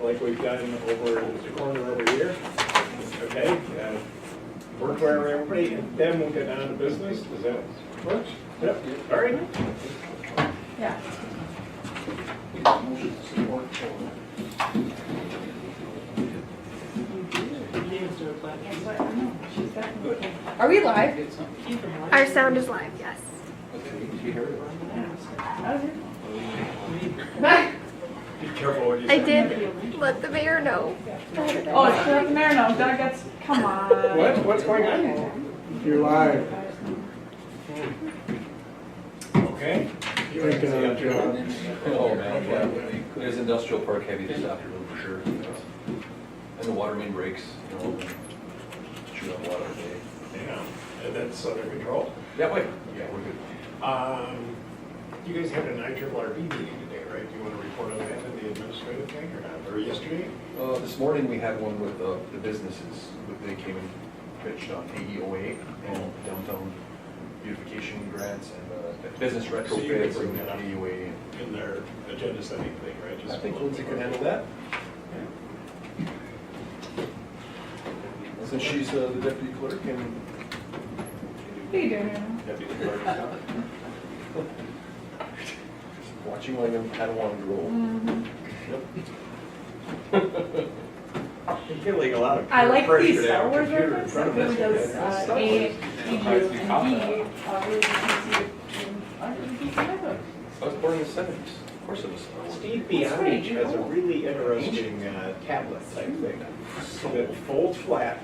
like we've done over the corner over here. Okay, uh, work where everybody, and then we'll get down to business, does that work? Yep, all right. Yeah. Are we live? Our sound is live, yes. Be careful what you I say. did let the mayor know. Oh, it's like Marino, that gets, come on. What, what's going on? You're live. Okay. Thank God, John. Oh, man, yeah. There's industrial park heavy this afternoon for sure. And the water main breaks, you know, shoot up water today. Yeah, and that's under control. Yeah, wait, yeah, we're good. Um, You guys had an IRRB meeting today, right? Do you want to report on that in the administrative thing or not, or yesterday? Uh, this morning, we had one with uh, the businesses, they came and pitched on AEOA and downtown beautification grants and uh, business So you can retrofits bring and that up. AEOA. In their agenda setting thing, right? Just I think Lindsay can handle that. Since she's uh, the deputy clerk and What are you doing, Marino? Deputy Clerk, yeah. watching like a Padawan girl. I'm feeling a lot of I like pressure these to Star have a Wars computer in references, front of us. really those Yeah. uh, Star A, Wars. E, U, and uh, D. uh, really easy to- I really keep track of. I was born in the seventies. Of course it was. Steve That's right, Beyondich you has a know. really interesting uh, tablet type thing that folds flat.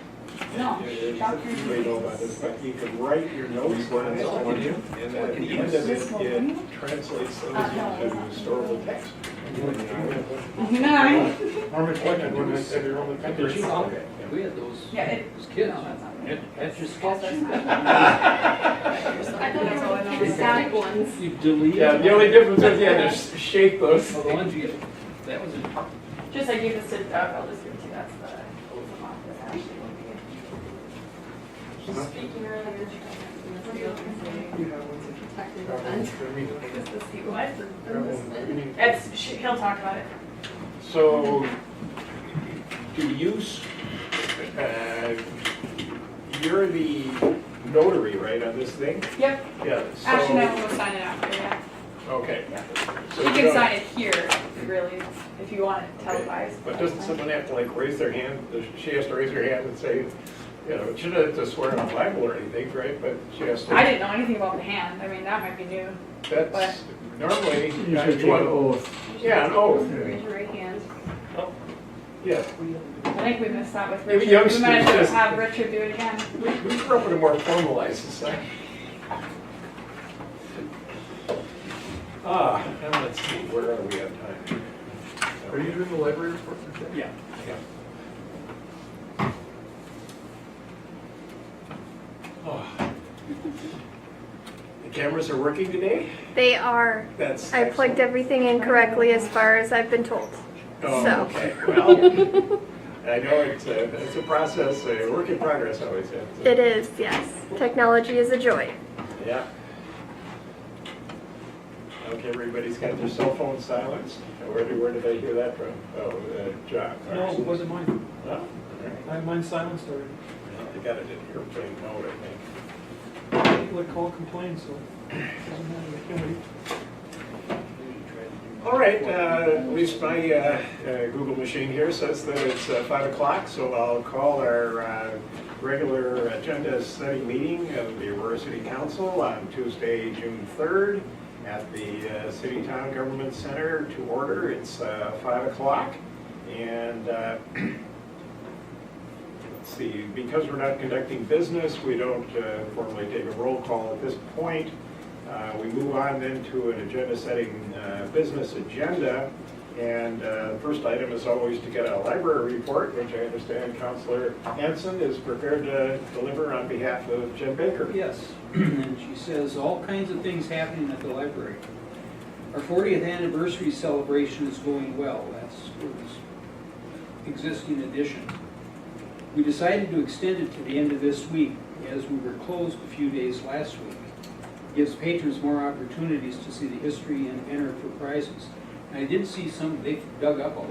No, You Dr. may know about this, but you can write your notes on it, Oh, can you? and then at the end of it, it translates those Uh, into historical text. Nine. Norman Flickon, when I said you're only Did you? country. Okay. We had those, Yeah, it. those kids. no, that's not At- right. After That's sketch, not right. you delete. Yeah, the only difference is, yeah, there's shape those. Oh, the ones you, that was, a- Just I gave this to Doug, I'll just give it to you, that's the. that's actually what we did. Speaking earlier, what are you looking for? Protected event. Is this the what? It's, she- he'll talk about it. So, do you, s- uh, you're the notary, right, on this thing? Yep, Yeah, Actually, no, so, we'll sign it after, yeah. okay. Yeah. So You can don't- sign it here, really, if you want it televised. But doesn't someone have to like raise their hand, she has to raise her hand and say, you know, she doesn't have to swear on Bible or anything, right? But she has to. I didn't know anything about the hand, I mean, that might be new. That's normally. uh, You should take an oath. Yeah, an oath, Raise your right hand. yeah. I think we missed that with Maybe Richard. youngsters We might have just- to have Richard do it again. We we grew up in a more formalized society. Ah, and let's see, where are we on time? Are you doing the library report for today? Yeah. yeah. Oh. The cameras are working today? They are. That's. I plugged excellent. everything in correctly as far as I've been told. Oh, so. okay, well, I know it's a, it's a process, a work in progress, I always say. It is, yes. Technology is a joy. Yeah. Okay, everybody's got their cell phone silenced. Where did, where did I hear that from? Oh, uh, John. no, it wasn't mine. Oh, all right. I had mine silenced already. Well, They got it in airplane mode, I think. People that call complain, so. it doesn't matter. I can't wait. All right, uh, at least my uh, uh, Google machine here says that it's uh, five o'clock, so I'll call our uh, regular agenda setting meeting of the Aurora City Council on Tuesday, June 3rd, at the uh, City Town Government Center to order. It's uh, five o'clock, and uh, Let's see, because we're not conducting business, we don't uh, formally take a roll call at this point. Uh, We move on then to an agenda-setting uh, business agenda. And uh, first item is always to get a library report, which I understand Counselor Hanson is prepared to deliver on behalf of Jim Baker. Yes, and she says all kinds of things happening at the library. Our 40th anniversary celebration is going well, that's Scoot's existing edition. We decided to extend it to the end of this week, as we were closed a few days last week. Gives patrons more opportunities to see the history and enter for prizes. And I did see some, they dug up a